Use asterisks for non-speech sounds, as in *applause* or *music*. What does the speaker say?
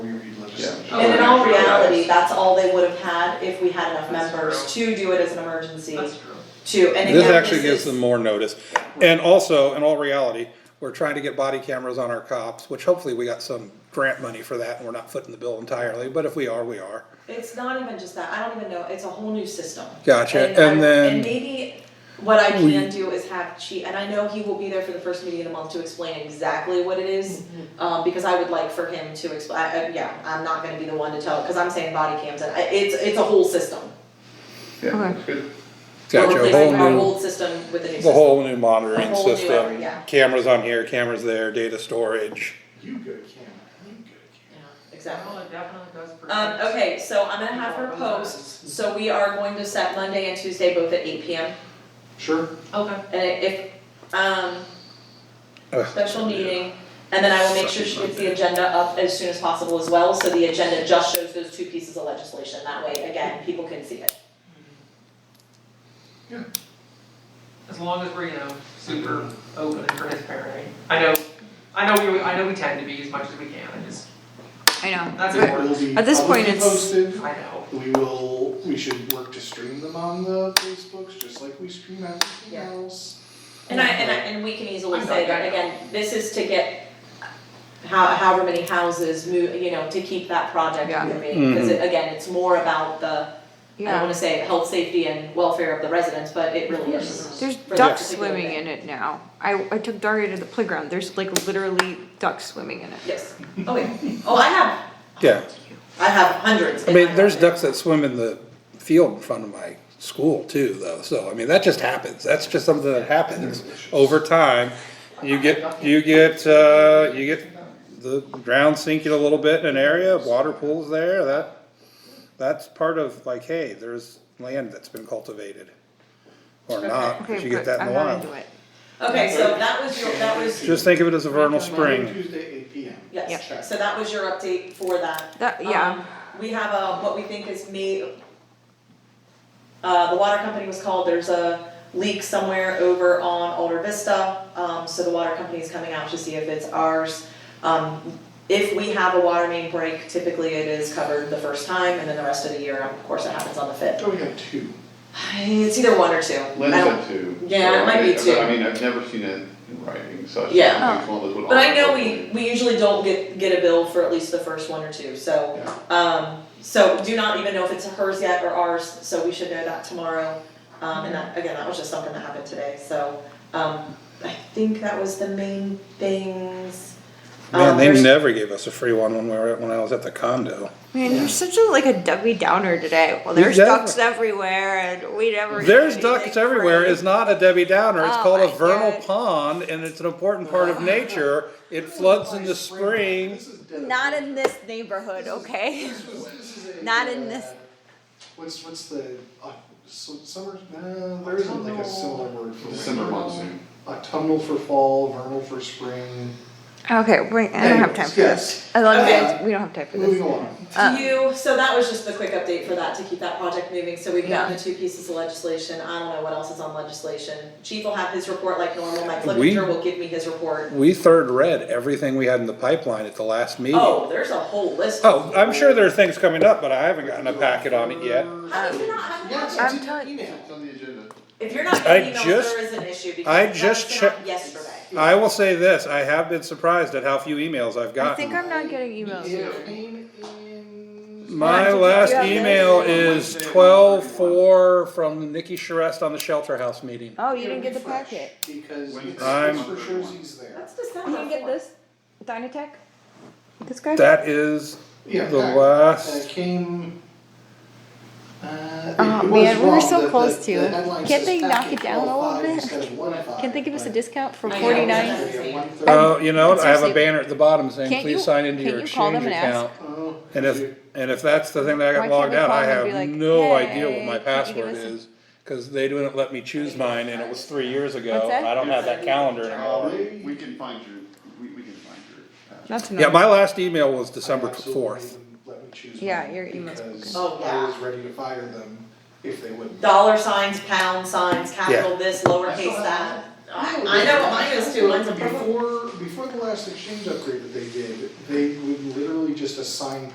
Oh, And in all reality, that's all they would have had if we had enough members to do it as an emergency, That's true. to, and again, This actually this gives is- them more notice. And also, in all reality, we're trying to get body cameras on our cops, which hopefully we got some grant money for that and we're not footing the bill entirely, but if we are, we are. It's not even just that, I don't even know, it's a whole new system. Gotcha, I- and then- And maybe what I can do is have Chi, and I know he will be there for the first meeting of the month to explain exactly what it is, um, because I would like for him to explain, I, I- yeah, I'm not gonna be the one to tell, cause I'm saying body cams, and I, it's, it's a whole system. Yeah, Okay. that's good. We're Gotcha, a whole replacing our new, old system with a new the system. whole new monitoring A whole new area, system. yeah. Cameras on here, cameras there, data storage. You go, Cameron, you go, Yeah, Exactly. Well, it definitely does protect. Um, okay, so I'm gonna have her post, so we are going to set Monday and Tuesday both at eight P M. Cameron. Sure. Okay. And if, um, Ugh. special meeting, and then I will make sure she gets the agenda up as soon as possible as well, so the agenda just shows those two pieces of legislation, that way, again, people can see it. As long as we're, you know, super open and transparent. I know, I know we, I know we tend to be as much as we can, I just, I know. that's It important. will be At this point, publicly it's- posted. I know. We will, we should work to stream them on the Facebooks, just like we stream everything Yeah. else. And I, and I, and we can easily I'm say not that, gonna- again, this is to get how, however many houses move, you know, to keep that project Yeah. moving, cause it, again, it's more about the, I don't Yeah. wanna say health, safety and welfare of the residents, but it really is. There's for that ducks particular swimming day. in it now. I, I took Daria to the playground. There's like literally ducks swimming in it. Yes, oh yeah, oh, I have, Yeah, I have hundreds I in mean, my there's yard. ducks that swim in the field in front of my school too, though, so, I mean, that just happens, that's just something that happens over time. You get, you get, uh, you get the ground sinking a little bit in an area, water pools there, that, that's part of, like, hey, there's land that's been cultivated. Or not, Okay, but you good. get that in I'm the not into wild. it. Okay, so that was your, that was, Just think of it as a vernal spring, Tuesday, eight P M. yes, so that was your update for that. That, yeah. Um, We have a, what we think is May, uh, the water company was called, there's a leak somewhere over on Alder Vista. Um, so the water company is coming out to see if it's ours. Um, if we have a water main break, typically it is covered the first time and then the rest of the year, of course, it happens on the fifth. So we have two. It's either one or two. I Lynn don't- said two. Yeah, it so I might be did- but two. I mean, I've never seen it in writing, so I just Yeah. don't know which one was what. But I know we, we usually don't get, get a bill for at least the first one or two, so, um, so do not even know if it's hers yet or ours, so we should know that tomorrow. Um, and that, again, that was just something that happened today, so, um, I think that was the main things. man, Um, they there's- never gave us a free one when we were, when I was at the condo. Man, you're such a like a Debbie Downer today. Well, there's Yeah. ducks everywhere, and we never. There's get ducks anything everywhere free. is not a Debbie Downer. It's Oh called a my vernal God. pond and it's an important part of nature. It floods in the spring. This is dead. Not in this neighborhood, okay? This was- this is a, *laughs* Not in uh, this- What's, what's the, uh, su- summer, no, there isn't like a similar word for. December monsoon. Autumnal for fall, vernal for spring. Okay, wait. I don't have time for this. I love Anyways, you. We don't have time for Moving this. on. Um, To you, so that was just the quick update for that, to keep that project moving, so we've gotten the two pieces of legislation, I don't know what else is on legislation. Chief will have his report like normal, Mike We- Flickinger will give me his report. We third read everything we had in the pipeline at the last meeting. Oh, there's a whole list. Oh, I'm sure there are things coming up, but I haven't gotten a packet on it yet. How did you not have that? Yes, I'm it's in telling- email. It's on the agenda. If you're not I getting emails, just- there is an issue because I that just was sent out checked- yesterday. I will say this, I have been surprised at how few emails I've I think gotten. I'm not getting emails. It came in. My Did you last have that? email is twelve four from Nikki Charest on the shelter house meeting. Oh, you didn't get the packet. Because When- it's I'm- it's for sure he's there. That's December. You didn't get this Dynatech. This guy. That is Yeah, the that- last That came. Uh, Oh, it was man, we were wrong. so The- the- close the to. headline Can't says they knock packet it down a little 12.5 bit? instead of 1.5. Can they give us a discount for I know. forty Yeah. nine? Oh, you know, what? I have a Seriously. banner at the bottom saying, Can't you- please sign into can't your you call exchange them and account. Oh, And if, and if that's the thing that I Why got can't logged we out, call I them and be have like, no idea what my "Hey, can you give password us is. Cause they didn't let me choose mine and it was three years ago, What's that? and I don't have that calendar Uh, anymore. we, we can find your, we, we can find your. uh, That's Yeah, annoying. my last email was December I absolutely fourth. wouldn't Let me choose. Yeah, mine your email's because broken. Oh, I yeah. was ready to fire them if they wouldn't. Dollar signs, pound signs, capital this, lowercase that. I, I know what mine is too. Mine's a purple. Before, before the last exchange upgrade that they did, they would literally just assign